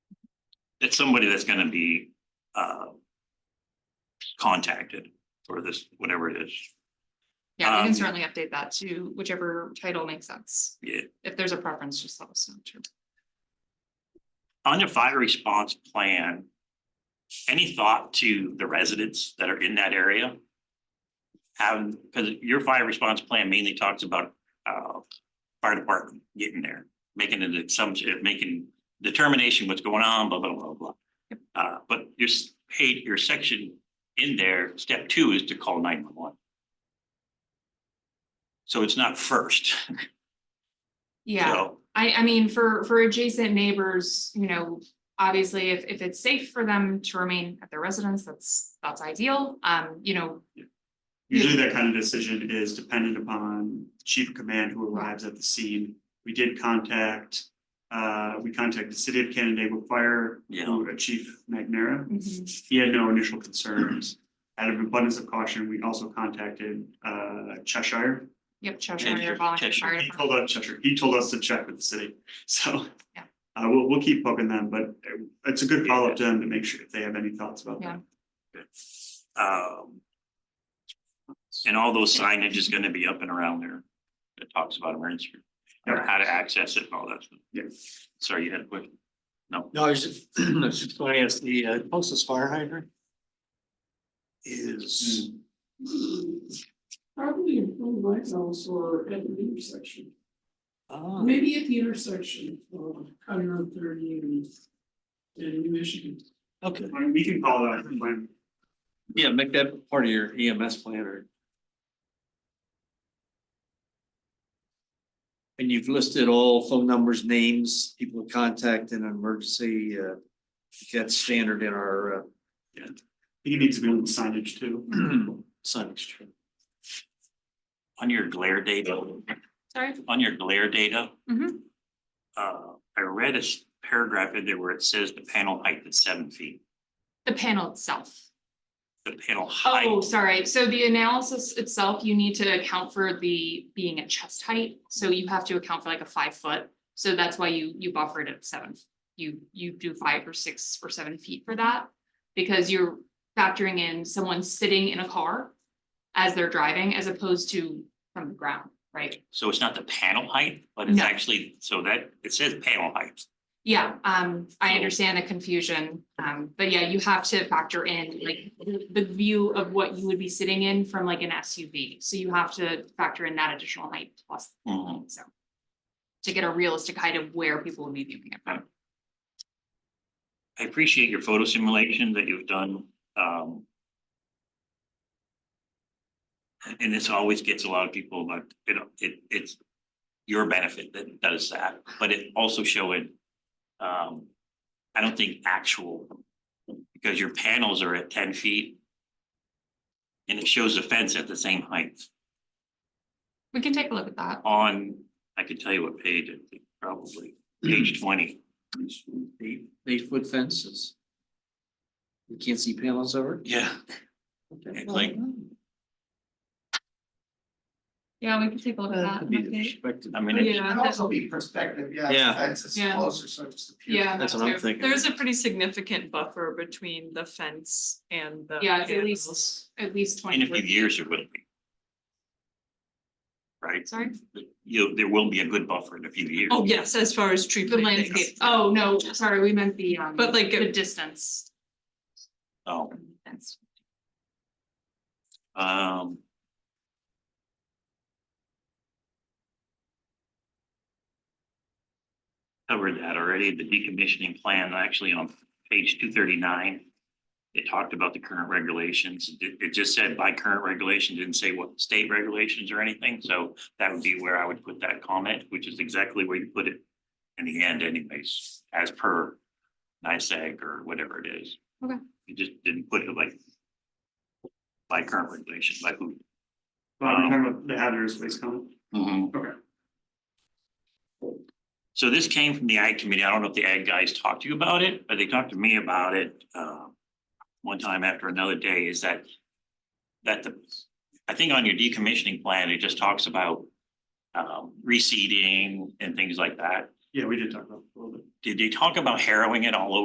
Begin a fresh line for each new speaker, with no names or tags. it's somebody that's gonna be, uh. Contacted for this, whatever it is,
Yeah, we
Um,
can certainly update that to whichever title makes sense.
yeah,
If there's a preference, just let us know too.
on your fire response plan. Any thought to the residents that are in that area? Have, cause your fire response plan mainly talks about, uh, fire department getting there, making an assumption, making determination what's going on, blah, blah, blah, blah. Uh, but your, s- page, your section in there, step two is to call nine one one. So it's not first,
Yeah,
so,
I, I mean, for, for adjacent neighbors, you know, obviously if, if it's safe for them to remain at their residence, that's, that's ideal. Um, you know,
Usually that kind of decision is dependent upon chief of command who arrives at the scene. We did contact, uh, we contacted the city of Canandaigua Fire.
Yeah.
who- uh, Chief McNamara.
Mm-hmm.
mhm,
He had no initial concerns. Out of abundance of caution, we also contacted, uh, Cheshire.
yep, Cheshire,
Cheshire,
your volunteer
Cheshire,
fire
He
department.
told us Cheshire, he told us to check with the city, so.
Yeah.
Uh, we'll, we'll keep poking them, but uh, it's a good follow-up to them to make sure if they have any thoughts about
Yeah.
that.
um. And all those signage is gonna be up and around there. It talks about emergency, or how to access it and all that. stuff.
Yes.
Sorry, you had a question? No,
No, I was just, I was just going to ask the uh, closest fire hydrant. Is.
Hmm. Probably in front of my house or at the intersection,
Oh,
maybe at the intersection of County Road thirty and. And New Michigan,
okay.
I mean, We can follow that when
Yeah, make that part of your EMS plan or. And you've listed all phone numbers, names, people to contact in an emergency, uh, that's standard in our
I think it needs to be on the signage too.
uh, signage.
on your glare data,
Sorry,
on your glare data.
Mhm.
Uh, I read a s- paragraph in there where it says the panel height is seven feet,
the panel itself.
the panel
Oh,
height,
sorry. So the analysis itself, you need to account for the being at chest height. So you have to account for like a five foot. So that's why you, you buffered at seven. You, you do five or six or seven feet for that. Because you're factoring in someone sitting in a car as they're driving as opposed to from the ground, right?
so it's not the panel height, but it's
No.
actually, so that, it says panel height.
Yeah, um, I understand the confusion, um, but yeah, you have to factor in like the, the view of what you would be sitting in from like an SUV. So you have to factor in that additional height plus,
Mhm.
so. To get a realistic height of where people would be viewing it from.
I appreciate your photo simulation that you've done, um. And this always gets a lot of people, but it, it, it's your benefit that does that, but it also showing, um, I don't think actual. Because your panels are at ten feet. And it shows the fence at the same height
We can take a look at that.
on, I could tell you what page, I think, probably, page twenty.
Eight, eight foot fences. You can't see panels over.
Yeah.
it?
It's like-
Yeah, we can take a look
Uh, could be the perspective.
I mean, it-
it
Oh, Yeah,
could
that's,
also be perspective, yeah,
Yeah.
that's it's
Yeah.
closer, so it just appears.
yeah.
That's what I'm thinking.
There's a pretty significant buffer between the fence and the.
Yeah, it's at
panels.
least, at least
in
twenty.
a few years, it will be. Right?
Sorry,
you, there will be a good buffer in a few years.
Oh, yes, as far as tree
the
planting.
landscape. Oh, no, sorry, we meant the, um,
But, like,
The
it-
distance.
Oh,
from the fence.
um. Covered that already, the decommissioning plan, actually on page two thirty-nine. It talked about the current regulations, it, it just said by current regulation, didn't say what state regulations or anything, so that would be where I would put that comment, which is exactly where you put it. In the end anyways, as per NISAG or whatever it is.
Okay.
You just didn't put it like. By current regulation, by who.
Well, we're talking about the hazardous waste comment. Okay.
Mm-hmm. So this came from the ag committee. I don't know if the ag guys talked to you about it, but they talked to me about it, uh, one time after another day is that, that the, I think on your decommissioning plan, it just talks about, um, reseeding and things like that.
Yeah, we did talk about it a little bit.
Did they talk about harrowing it all over?